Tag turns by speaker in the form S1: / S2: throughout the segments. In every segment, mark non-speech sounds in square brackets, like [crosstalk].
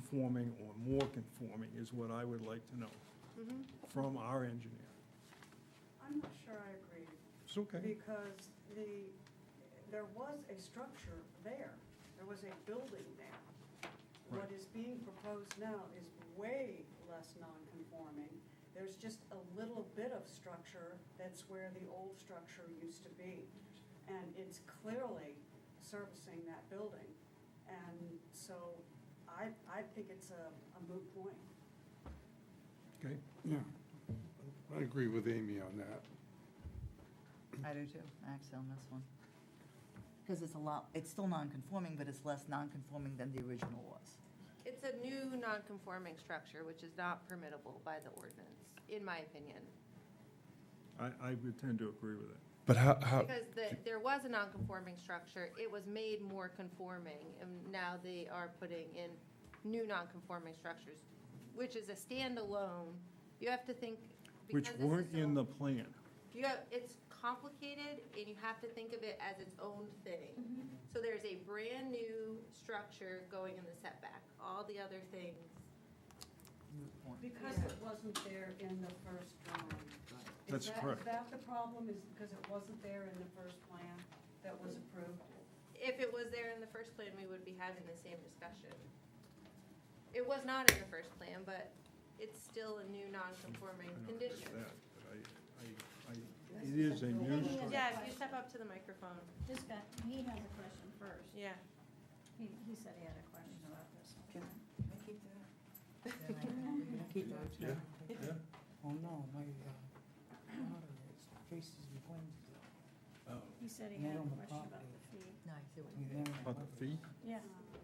S1: conforming or more conforming is what I would like to know
S2: Mm-hmm.
S1: from our engineer.
S3: I'm not sure I agree,
S1: It's okay.
S3: because the, there was a structure there, there was a building there. What
S1: Right.
S3: is being proposed now is way less non-conforming, there's just a little bit of structure, that's where the old structure used to be. And it's clearly servicing that building, and so I, I think it's a a moot point.
S1: Okay,
S4: Yeah, I agree with Amy on that.
S5: I do too, actually, on this one. Because it's a lot, it's still non-conforming, but it's less non-conforming than the original was.
S2: It's a new non-conforming structure, which is not permittable by the ordinance, in my opinion.
S1: I, I would tend to agree with that.
S6: But how,
S1: Oh.
S6: how,
S2: Because the, there was a non-conforming structure, it was made more conforming, and now they are putting in new non-conforming structures, which is a standalone. You have to think.
S1: Which
S2: because this is
S1: weren't in
S2: so-
S1: the plan.
S2: You have, it's complicated and you have to think of it as its own thing. So there's a brand new structure going in the setback, all the other things.
S5: Moot point.
S3: Because it wasn't there in the first drawing. Is
S1: That's
S3: that- is
S1: correct.
S3: that the problem, is because it wasn't there in the first plan that was approved?
S2: If it was there in the first plan, we would be having the same discussion. It was not in the first plan, but it's still a new
S1: I
S2: non-conforming
S1: don't agree with
S2: condition.
S1: that, but I- I- I- It is a new
S7: This is a-
S1: structure.
S2: Yeah, if you step up to the microphone,
S7: This guy, uh, he has a question first.
S2: yeah.
S7: He, he said he had a question about this.
S5: Can I keep that? Then [laughs] I can Keep that.
S6: Yeah. Yeah.
S8: Oh no, my uh, daughter is faces and twins.
S7: He said he
S8: Not
S7: had a
S8: on the
S7: question about
S8: property.
S7: the fee.
S5: No, I see what
S8: and
S5: you
S8: then-
S5: mean.
S1: About the fee?
S7: Yeah,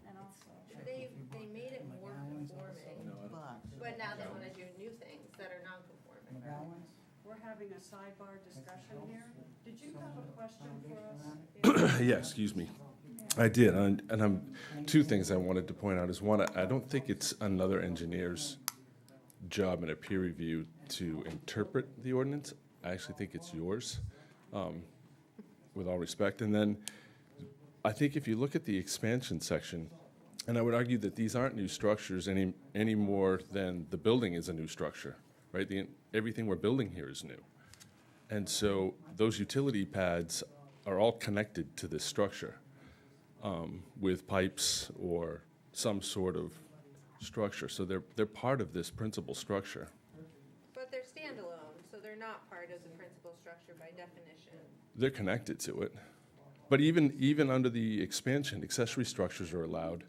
S7: and also,
S2: They, they made it more conforming,
S5: But
S2: but now they wanna do new things that are non-conforming.
S8: McGowan's?
S3: We're having a sidebar discussion here. Did you have a question for us?
S8: [coughs]
S6: yeah, excuse me. I did, and, and I'm, two things I wanted to point out is one, I I don't think it's another engineer's job in a peer review to interpret the ordinance. I actually think it's yours, um, with all respect. And then I think if you look at the expansion section, and I would argue that these aren't new structures any, any more than the building is a new structure, right? The, everything we're building here is new. And so those utility pads are all connected to this structure um, with pipes or some sort of structure. So they're, they're part of this principal structure.
S2: But they're standalone, so they're not part of the principal structure by definition.
S6: They're connected to it. But even, even under the expansion, accessory structures are allowed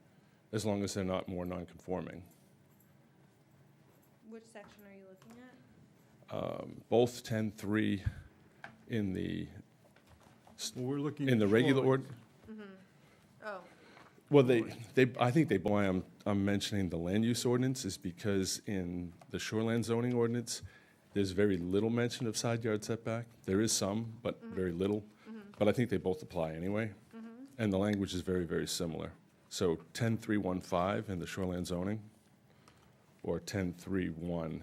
S6: as long as they're not more nonconforming.
S2: Which section are you looking at?
S6: Um, Both 10.3 in the,
S1: Well, we're looking.
S6: in the
S1: at
S6: regular
S1: shorelines.
S6: ord,
S2: Oh,
S6: Well, they, they, I think they, why I'm, I'm mentioning the land use ordinance is because in the shoreland zoning ordinance, there's very little mention of side yard setback. There is some, but very little. But I think they both apply anyway. And the language is very, very similar. So 10315 in the shoreland zoning or 10311.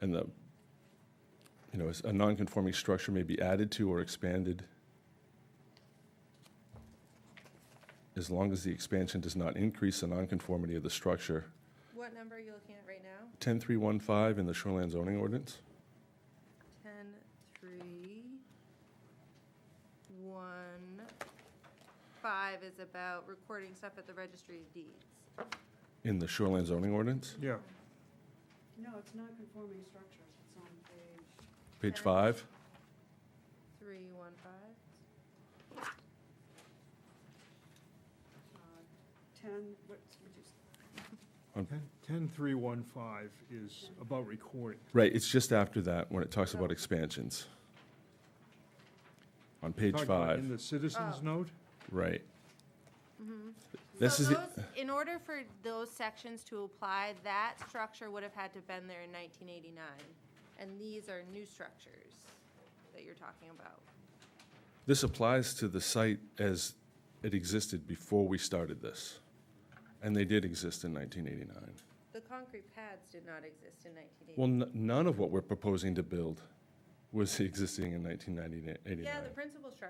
S6: And the you know, a nonconforming structure may be added to or expanded as long as the expansion does not increase the nonconformity of the structure.
S2: what number are you looking at right now?
S6: 10315 in the shoreline zoning ordinance?
S2: Ten, three, one, five is about recording stuff at the registry of deeds.
S6: In the shoreline zoning ordinance?
S1: Yeah,
S3: No, it's non-conforming structures, it's on page,
S6: Page
S2: Okay.
S6: five?
S2: Three, one, five?
S3: uh, ten, what, would you say?
S1: ten, ten, three, one, five is about recording.
S6: Right, it's just after that when it talks
S2: Oh.
S6: about expansions. On page
S1: Talking about In
S6: five,
S1: the citizens
S2: Oh.
S1: note?
S6: right. This
S2: Mm-hmm. so those,
S6: is, the-
S2: in order for those sections to apply, that structure would have had to have been there in 1989, and these are new structures that you're talking about.
S6: this applies to the site as it existed before we started this. And they did exist in 1989.
S2: The concrete pads did not exist in 1989.
S6: Well, n- none of what we're proposing to build
S9: was existing in 1989.
S6: [laughs] Yeah, the principal structure